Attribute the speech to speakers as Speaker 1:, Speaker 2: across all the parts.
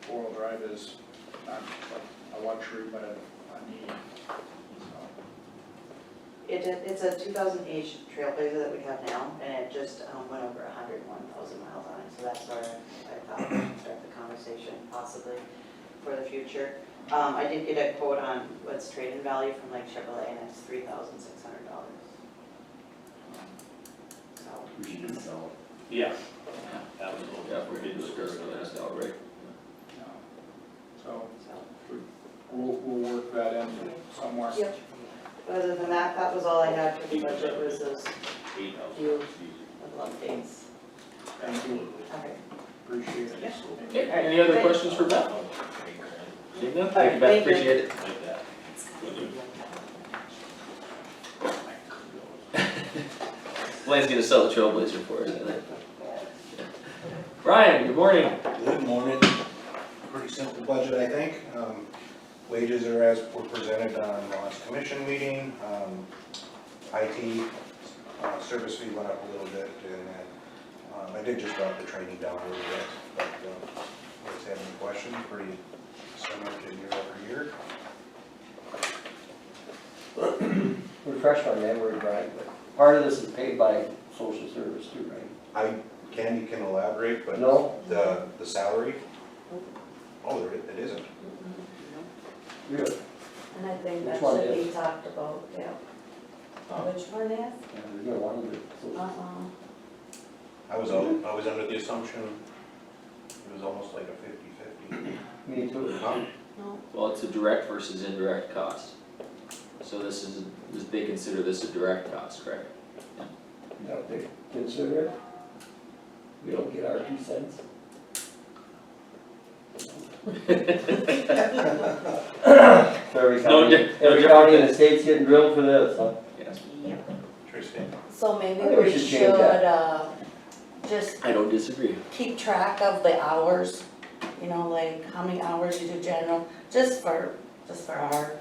Speaker 1: describe as not like a luxury, but a, a need. So,
Speaker 2: It, did- it's a two thousand eight trailblazer that we have now, and it just um, went over hundred and one thousand miles on it, so that's where I thought we'd start the conversation possibly for the future. Um, I did get a quote on what's trade-in value from like Chevrolet, and it's three thousand six hundred dollars. So,
Speaker 3: We should do so.
Speaker 4: Yeah, absolutely.
Speaker 3: Yeah, we're getting discouraged on that now, right?
Speaker 1: yeah. So
Speaker 2: so,
Speaker 1: we'll, we'll work that in somewhere.
Speaker 2: yep. Other than that, that was all I had for the budget, was those
Speaker 4: Eight thousand.
Speaker 2: few little updates.
Speaker 1: Thank you,
Speaker 2: Okay.
Speaker 1: appreciate it.
Speaker 2: Yeah.
Speaker 1: Thank you.
Speaker 3: Okay, any other
Speaker 2: Great.
Speaker 3: questions for Beth? Seeing none, thank you, Beth,
Speaker 2: Thank you.
Speaker 3: appreciate it.
Speaker 4: Like that.
Speaker 3: Blaine's gonna sell the Trailblazer for us tonight. Brian, good morning.
Speaker 5: Good morning. Pretty simple budget, I think. Um, Wages are as were presented on the last commission meeting. Um, IT uh, service fee went up a little bit, and then, um, I did just drop the training down a little bit, but uh, if you have any questions, pretty similar to year over year.
Speaker 6: refresh my memory, Brian, but part of this is paid by social service too, right?
Speaker 5: I, Candy can elaborate, but
Speaker 6: No,
Speaker 5: the, the salary? Oh, there it it isn't.
Speaker 6: really,
Speaker 7: And I think
Speaker 6: Which
Speaker 7: that
Speaker 6: one
Speaker 7: should be
Speaker 6: is?
Speaker 7: talked about, yeah. Which one is?
Speaker 6: yeah, there's no one that, so,
Speaker 7: Uh-uh.
Speaker 5: I was, al- I was under the assumption it was almost like a fifty-fifty.
Speaker 6: me too.
Speaker 7: No.
Speaker 3: Well, it's a direct versus indirect cost. So this is, this- they consider this a direct cost, correct?
Speaker 6: Don't they consider it? We don't get our two cents? So
Speaker 3: No
Speaker 6: every county,
Speaker 3: di- no
Speaker 6: every
Speaker 3: different
Speaker 6: county in
Speaker 3: than-
Speaker 6: the state's getting drilled for this, huh?
Speaker 3: Yes,
Speaker 5: Interesting.
Speaker 7: So maybe
Speaker 6: I think we
Speaker 7: we
Speaker 6: should
Speaker 7: should,
Speaker 6: change that.
Speaker 7: uh, just
Speaker 3: I don't disagree.
Speaker 7: keep track of the hours, you know, like how many hours you do general, just for, just for our.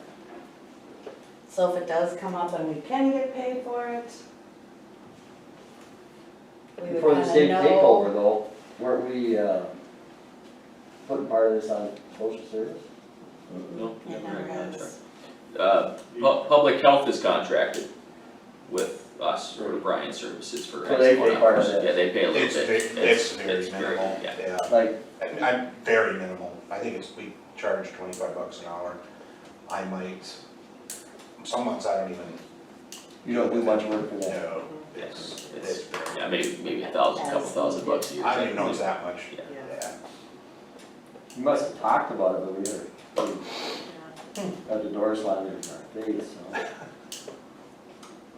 Speaker 7: So if it does come up and we can get paid for it. we would
Speaker 6: Before the
Speaker 7: kinda
Speaker 6: state
Speaker 7: know.
Speaker 6: takeover though, weren't we, uh, putting part of this on social service?
Speaker 3: No,
Speaker 7: It
Speaker 3: never
Speaker 7: never
Speaker 3: had a
Speaker 7: is.
Speaker 3: contract. Uh, pu- public health is contracted with us or Brian Services for X
Speaker 6: So they
Speaker 3: amount
Speaker 6: pay part of
Speaker 3: hours.
Speaker 6: that.
Speaker 3: Yeah, they pay a little
Speaker 5: It's,
Speaker 3: bit.
Speaker 5: ve- it's
Speaker 3: it's
Speaker 5: very minimal,
Speaker 3: yeah.
Speaker 5: yeah.
Speaker 6: Like,
Speaker 5: I- I'm very minimal. I think it's, we charge twenty-five bucks an hour. I might, some months I don't even.
Speaker 6: you don't do much work for that.
Speaker 5: No, it's,
Speaker 3: It's-
Speaker 5: it's very.
Speaker 3: Yeah, maybe, maybe a thousand, couple thousand bucks a year.
Speaker 5: I don't even know it's that much,
Speaker 3: Yeah.
Speaker 2: Yeah.
Speaker 5: yeah.
Speaker 6: You must have talked about it, but we never,
Speaker 2: Yeah.
Speaker 6: Got the door slammed in our face, so.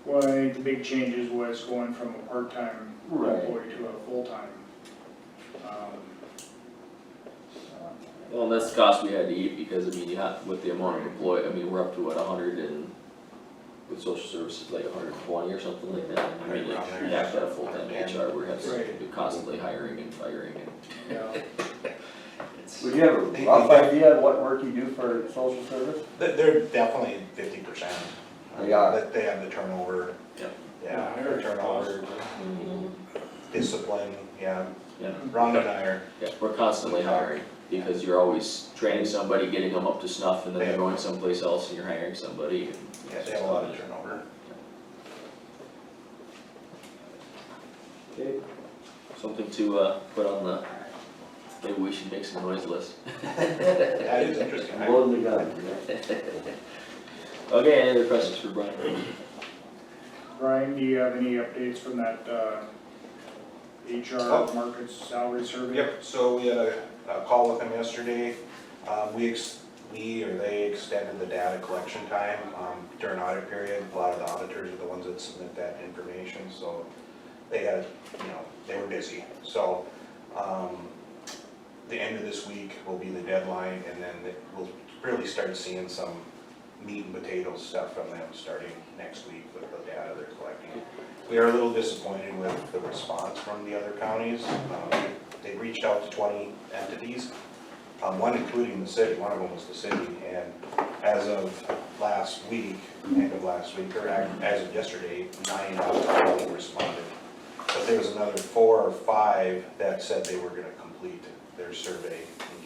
Speaker 1: Well, I think the big changes was going from a part-time
Speaker 6: Right.
Speaker 1: employee to a full-time. Um,
Speaker 3: Well, that's the cost we had to eat, because I mean, you have, with the amount of employee, I mean, we're up to what, a hundred and, with social services, like a hundred and twenty or something like that. I mean, like, we have to have full-time HR, we're having,
Speaker 1: Right.
Speaker 3: we're constantly hiring and firing and
Speaker 1: Yeah,
Speaker 3: it's.
Speaker 6: Would you have a rough idea of what work you do for social service?
Speaker 5: They- They're definitely fifty percent.
Speaker 6: They are.
Speaker 5: They have the turnover.
Speaker 3: Yep.
Speaker 5: Yeah, their turnover, discipline, yeah.
Speaker 3: Yeah.
Speaker 5: Rhonda and I are,
Speaker 3: Yeah, we're constantly hiring, because you're always training somebody, getting them up to snuff, and then they're going someplace else and you're hiring somebody. and-
Speaker 5: yeah, they have a lot of turnover.
Speaker 3: Something to, uh, put on the, maybe we should make some noise list.
Speaker 5: That is interesting. I-
Speaker 6: Loading the gun, you know?
Speaker 3: Okay, any other questions for Brian?
Speaker 1: Brian, do you have any updates from that, uh,
Speaker 5: Oh.
Speaker 1: HR market salary survey?
Speaker 5: Yep, so we had a, a call with them yesterday. Um, we ex, we or they extended the data collection time, um, during audit period. A lot of the auditors are the ones that submit that information, so they had, you know, they were busy. So, um, the end of this week will be the deadline and then it- we'll really start seeing some meat and potatoes stuff from them starting next week with the data they're collecting. We are a little disappointed with the response from the other counties. Um, They reached out to twenty entities, um, one including the city, one of them was the city. And as of last week, end of last week, or ac- as of yesterday, nine out of twenty responded. But there was another four or five that said they were gonna complete their survey